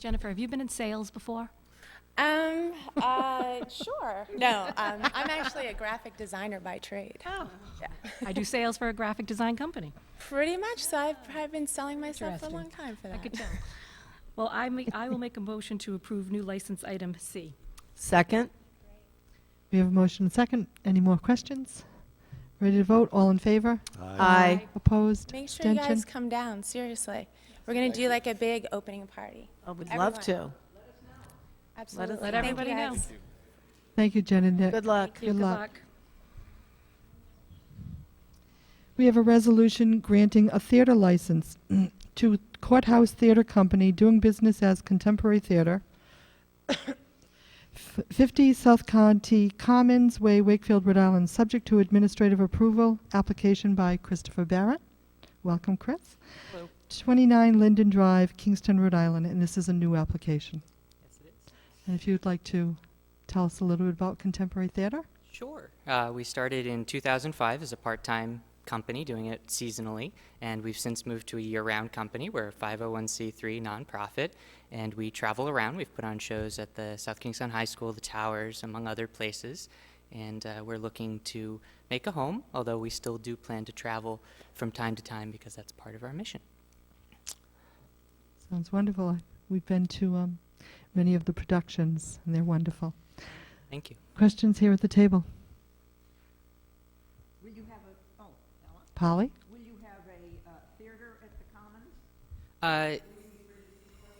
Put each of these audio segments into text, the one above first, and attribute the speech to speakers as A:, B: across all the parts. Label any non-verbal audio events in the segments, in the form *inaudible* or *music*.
A: Jennifer, have you been in sales before?
B: Um,
A: *laughs*
B: uh, sure. No, um, I'm actually a graphic designer by trade.
A: Oh. I do sales for a graphic design company.
B: Pretty much. So I've, I've been selling myself for a
A: Interesting.
B: long time for that.
A: I could tell. Well, I ma- I will make a motion to approve new license item C.
C: Second?
D: We have a motion and second. Any more questions? Ready to vote? All in favor?
C: Aye.
D: Opposed?
B: Make sure you guys
D: Abstention?
B: come down. Seriously, we're gonna do like a big opening party.
C: I would love to.
B: Everyone. Absolutely.
C: Let
B: Thank you,
A: everybody know.
B: guys.
D: Thank you, Jen and Nick.
C: Good luck.
D: Good luck. We have a resolution granting a theater license *clears throat* to Courthouse Theater Company doing business as Contemporary Theater, *coughs* f- 50 South County Commons Way, Wakefield, Rhode Island, subject to administrative approval, application by Christopher Barrett. Welcome, Chris. 29 Linden Drive, Kingston, Rhode Island, and this is a new application. And if you'd like to tell us a little bit about Contemporary Theater?
E: Sure. Uh, we started in 2005 as a part time company doing it seasonally, and we've since moved to a year round company. We're a 501c3 nonprofit, and we travel around. We've put on shows at the South Kingston High School, the Towers, among other places, and uh, we're looking to make a home, although we still do plan to travel from time to time because that's part of our mission.
D: Sounds wonderful. I- We've been to um, many of the productions, and they're wonderful.
E: Thank you.
D: Questions here at the table?
F: Will you have a, oh, Ella,
D: Polly?
F: will you have a uh, theater at the Commons?
E: Uh,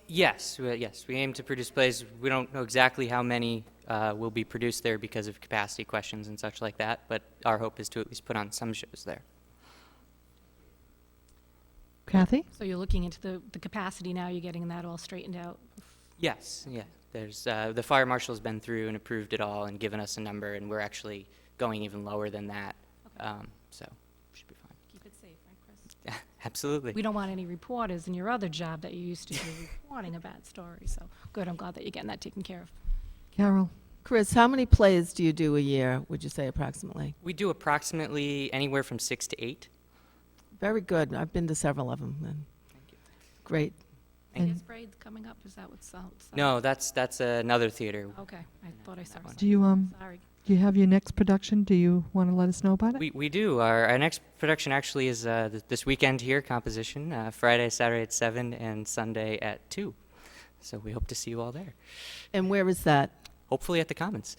E: yes, we- yes. We aim to produce plays. We don't know exactly how many uh, will be produced there because of capacity questions and such like that, but our hope is to at least put on some shows there.
D: Kathy?
A: So you're looking into the, the capacity now, you're getting that all straightened out.
E: Yes, yeah. There's uh, the fire marshal's been through and approved it all and given us a number, and we're actually going even lower than that. Um, so should be fine.
A: Keep it safe, right, Chris?
E: *laughs* Absolutely.
A: We don't want any reporters in your other job that you used to do reporting a bad story, so good, I'm glad that you're getting that taken care of.
D: Carol?
C: Chris, how many plays do you do a year, would you say approximately?
E: we do approximately anywhere from six to eight.
C: Very good. I've been to several of them. And great.
E: Thank
A: Is Braid coming up, is that what's, what's-
E: No, that's that's another theater.
A: Okay, I thought I saw
E: That one.
D: Do
A: something,
D: you, um,
A: sorry.
D: do you have your next production? Do you want to let us know about it?
E: We, we do. Our, our next production actually is uh, th- this weekend here, Composition, uh, Friday, Saturday at 7, and Sunday at 2. So we hope to see you all there.
C: And where is that?
E: Hopefully at the Commons.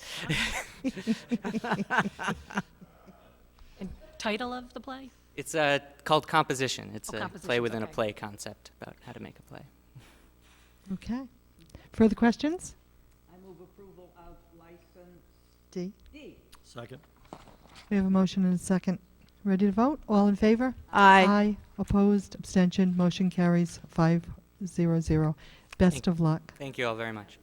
A: And title of the play?
E: It's uh, called Composition. It's
A: Oh,
E: a play
A: Compositions,
E: within
A: okay.
E: a play concept about how to make a play.
D: Okay. Further questions?
F: I move approval of license
D: D.
F: D.
G: Second.
D: We have a motion and a second. Ready to vote? All in favor?
C: Aye.
D: Aye. Opposed? Abstention? Motion carries five zero zero. Best
E: Thank-
D: of luck.
E: Thank you all very much.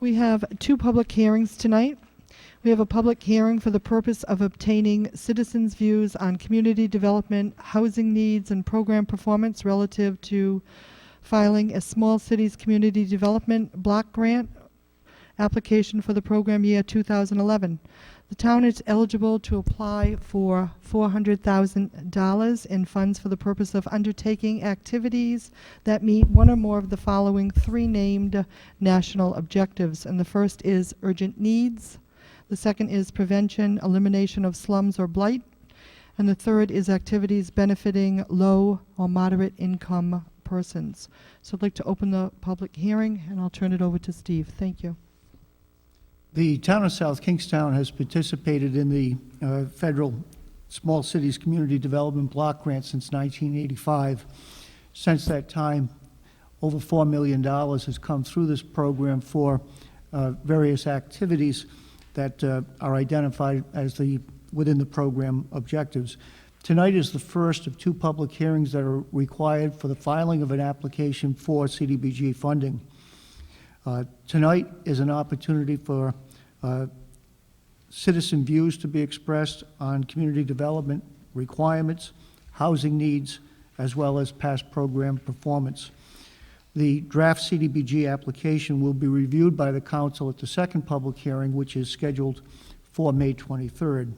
D: We have two public hearings tonight. We have a public hearing for the purpose of obtaining citizens' views on community development, housing needs, and program performance relative to filing a small cities community development block grant application for the program year 2011. The town is eligible to apply for $400,000 in funds for the purpose of undertaking activities that meet one or more of the following three named national objectives. And the first is urgent needs, the second is prevention, elimination of slums or blight, and the third is activities benefiting low or moderate income persons. So I'd like to open the public hearing, and I'll turn it over to Steve. Thank you.
H: The town of South Kingstown has participated in the uh, federal Small Cities Community Development Block Grant since 1985. Since that time, over $4 million has come through this program for uh, various activities that uh, are identified as the, within the program objectives. Tonight is the first of two public hearings that are required for the filing of an application for CDBG funding. Uh, Tonight is an opportunity for uh, citizen views to be expressed on community development requirements, housing needs, as well as past program performance. The draft CDBG application will be reviewed by the council at the second public hearing, which is scheduled for May 23rd.